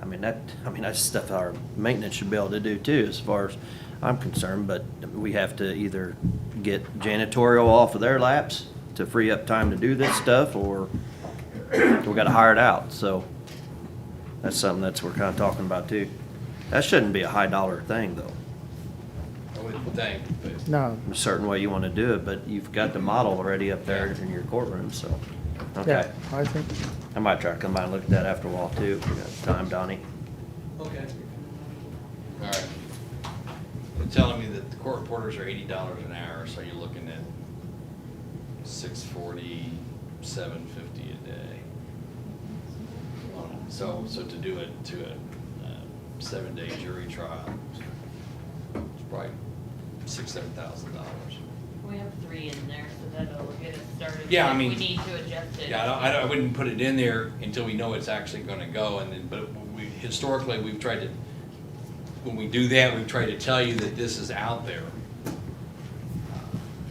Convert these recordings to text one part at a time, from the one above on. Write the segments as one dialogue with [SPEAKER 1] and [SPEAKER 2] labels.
[SPEAKER 1] I mean, that, I mean, that's stuff our maintenance should be able to do too, as far as I'm concerned, but we have to either get janitorial off of their laps to free up time to do this stuff, or we gotta hire it out, so that's something that's, we're kinda talking about too. That shouldn't be a high dollar thing, though.
[SPEAKER 2] I would think, but
[SPEAKER 3] No,
[SPEAKER 1] a certain way you want to do it, but you've got the model already up there in your courtroom, so.
[SPEAKER 3] yeah,
[SPEAKER 1] Okay.
[SPEAKER 3] I think,
[SPEAKER 1] I might try to come by and look at that after a while too, if we got time, Donnie.
[SPEAKER 2] okay. All right. They're telling me that the court reporters are eighty dollars an hour, so you're looking at six forty, seven fifty a day. So, so to do it to a uh, seven-day jury trial, it's probably six, seven thousand dollars.
[SPEAKER 4] We have three in there, so that'll get us started.
[SPEAKER 2] Yeah, I
[SPEAKER 4] If
[SPEAKER 2] mean-
[SPEAKER 4] We need to adjust it.
[SPEAKER 2] Yeah, I don't, I don't- I wouldn't put it in there until we know it's actually gonna go, and then, but we, historically, we've tried to, when we do that, we've tried to tell you that this is out there. Uh,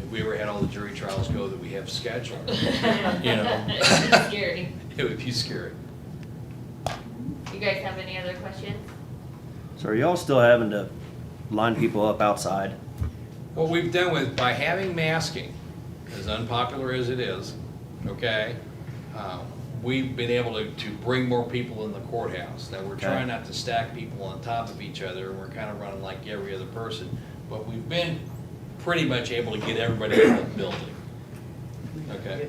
[SPEAKER 2] If we ever had all the jury trials go that we have scheduled, you know?
[SPEAKER 4] It's scary.
[SPEAKER 2] It would be scary.
[SPEAKER 4] You guys have any other questions?
[SPEAKER 1] So are y'all still having to line people up outside?
[SPEAKER 2] What we've done with, by having masking, as unpopular as it is, okay, uh, we've been able to, to bring more people in the courthouse. Now, we're
[SPEAKER 1] Okay.
[SPEAKER 2] trying not to stack people on top of each other, and we're kind of running like every other person, but we've been pretty much able to get everybody in the building. Okay.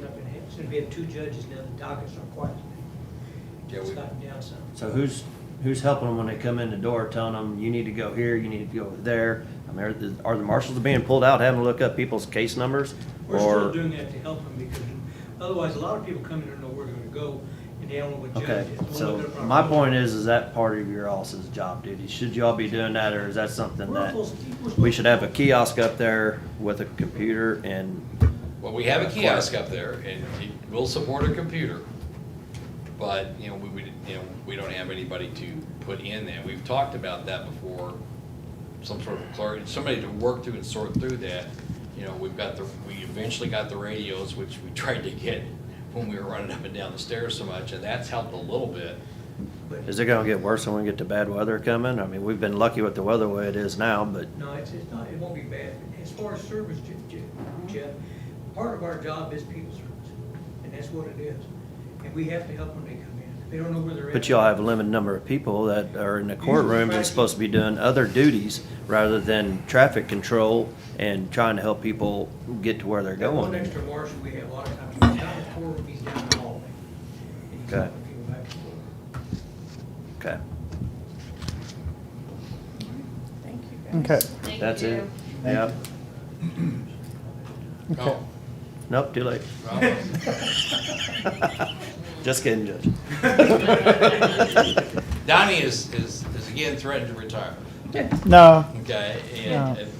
[SPEAKER 5] Since we have two judges now, the dockets are quiet.
[SPEAKER 2] Yeah,
[SPEAKER 5] It's
[SPEAKER 2] we-
[SPEAKER 5] gotten down some.
[SPEAKER 1] So who's, who's helping them when they come in the door, telling them, you need to go here, you need to go there? I mean, are the, are the marshals being pulled out, having to look up people's case numbers?
[SPEAKER 5] We're still
[SPEAKER 1] Or,
[SPEAKER 5] doing that to help them because otherwise, a lot of people come in and don't know where they're gonna go and they don't know what judge
[SPEAKER 1] okay,
[SPEAKER 5] is. Don't look
[SPEAKER 1] so
[SPEAKER 5] at the front
[SPEAKER 1] my
[SPEAKER 5] door.
[SPEAKER 1] point is, is that part of your office's job duty? Should y'all be doing that, or is that something
[SPEAKER 5] We're
[SPEAKER 1] that?
[SPEAKER 5] supposed to- we're
[SPEAKER 1] We
[SPEAKER 5] supposed
[SPEAKER 1] should
[SPEAKER 5] to-
[SPEAKER 1] have a kiosk up there with a computer and,
[SPEAKER 2] Well, we have a kiosk up there, and it will support a computer, but, you know, we, we, you know, we don't have anybody to put in there. We've talked about that before, some sort of clerk, somebody to work through and sort through that. You know, we've got the, we eventually got the radios, which we tried to get when we were running up and down the stairs so much, and that's helped a little bit.
[SPEAKER 1] is it gonna get worse when we get the bad weather coming? I mean, we've been lucky with the weather the way it is now, but
[SPEAKER 5] No, it's, it's not, it won't be bad. As far as service, Je- Je- Jeff, part of our job is people service, and that's what it is. And we have to help when they come in. They don't know where they're at.
[SPEAKER 1] But y'all have a limited number of people that are in the courtroom that's supposed to be doing other duties rather than traffic control and trying to help people get to where they're
[SPEAKER 5] That one
[SPEAKER 1] going.
[SPEAKER 5] extra marshal we have, a lot of times, he's down the corridor, he's down the hallway. And he's
[SPEAKER 1] Okay.
[SPEAKER 5] helping people back and forth.
[SPEAKER 1] Okay,
[SPEAKER 6] Thank you, guys.
[SPEAKER 3] okay,
[SPEAKER 4] Thank
[SPEAKER 1] that's
[SPEAKER 4] you.
[SPEAKER 1] it. Yep.
[SPEAKER 3] okay.
[SPEAKER 2] Oh,
[SPEAKER 1] Nope, too late.
[SPEAKER 2] well,
[SPEAKER 1] Just kidding, Judge.
[SPEAKER 2] Donnie is, is, is again threatened to retire.
[SPEAKER 3] No,
[SPEAKER 2] Okay,
[SPEAKER 3] Yeah.
[SPEAKER 2] and, and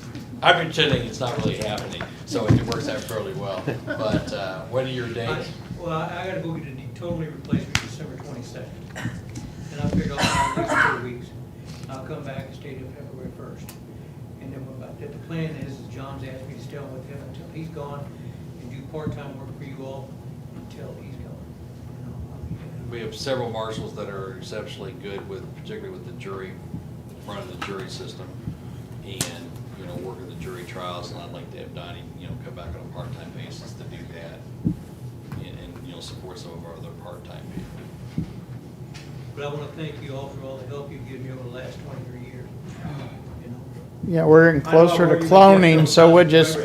[SPEAKER 2] I'm pretending it's not really happening, so it works out fairly well. But, uh, what are your dates?
[SPEAKER 5] Well, I I gotta go get a totally replacement December twenty-second. And I figured I'll have at least two weeks. I'll come back and stay till February first. And then what about, that? the plan is, is John's asked me to stay on with him until he's gone and do part-time work for you all until he's gone. And I'll- I'll be back.
[SPEAKER 2] We have several marshals that are exceptionally good with, particularly with the jury, running the jury system and, you know, working the jury trials, and I'd like to have Donnie, you know, come back on a part-time basis to do that. And, and, you know, support some of our other part-time people.
[SPEAKER 5] But I wanna thank you all for all the help you've given me over the last twenty-three years. You know,
[SPEAKER 3] yeah, we're getting closer to cloning, so we'll just,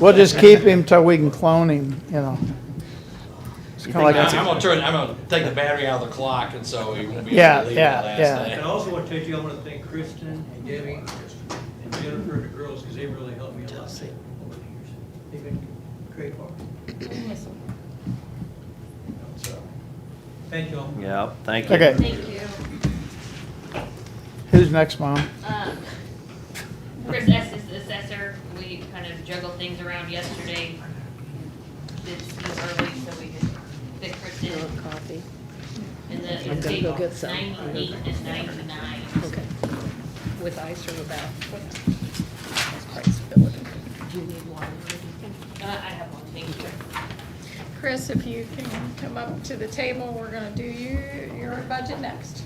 [SPEAKER 3] we'll just keep him till we can clone him, you know. It's kinda like,
[SPEAKER 2] I'm gonna turn, I'm gonna take the battery out of the clock, and so he won't be
[SPEAKER 3] Yeah,
[SPEAKER 2] able to leave the
[SPEAKER 3] yeah,
[SPEAKER 2] last
[SPEAKER 3] yeah.
[SPEAKER 2] thing.
[SPEAKER 5] And I also wanna thank you, I wanna thank Kristen and Debbie and Jennifer, the girls, because they really helped me a lot over the years. They've been great partners. So, Thank you all.
[SPEAKER 1] Yep, thank you.
[SPEAKER 3] okay,
[SPEAKER 4] Thank you.
[SPEAKER 3] who's next, Mom?
[SPEAKER 4] Um, Chris S. is the assessor. We kind of juggled things around yesterday. It's too early, so we could fit Chris
[SPEAKER 6] You
[SPEAKER 4] in.
[SPEAKER 6] want coffee?
[SPEAKER 4] And the,
[SPEAKER 6] I'm
[SPEAKER 4] it's
[SPEAKER 6] gonna go get some.
[SPEAKER 4] ninety-eight and ninety-nine.
[SPEAKER 6] Okay. With ice or without? That's price bill.
[SPEAKER 4] Do you need water or anything? Uh, I have one, thank you.
[SPEAKER 7] Chris, if you can come up to the table, we're gonna do you, your budget next.